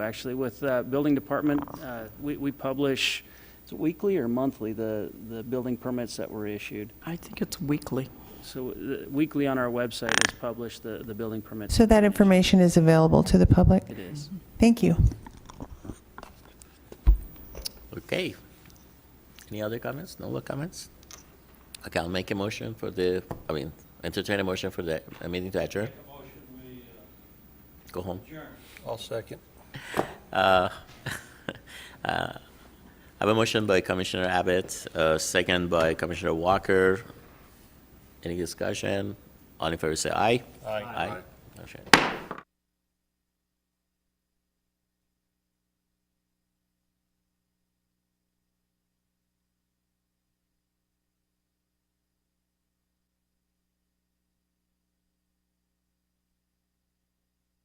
actually, with uh, Building Department. Uh, We we publish, is it weekly or monthly, the the building permits that were issued? I think it's weekly. So uh, weekly on our website is published, the the building permits. So that information is available to the public? It is. Thank you. Okay. Any other comments? No other comments? Okay, I'll make a motion for the, I mean, entertain a motion for the uh, meeting to adjourn. Go home. I'll second. Uh, uh, I have a motion by Commissioner Abbott, uh, second by Commissioner Walker. Any discussion? All in favor, say aye. Aye. Aye. Motion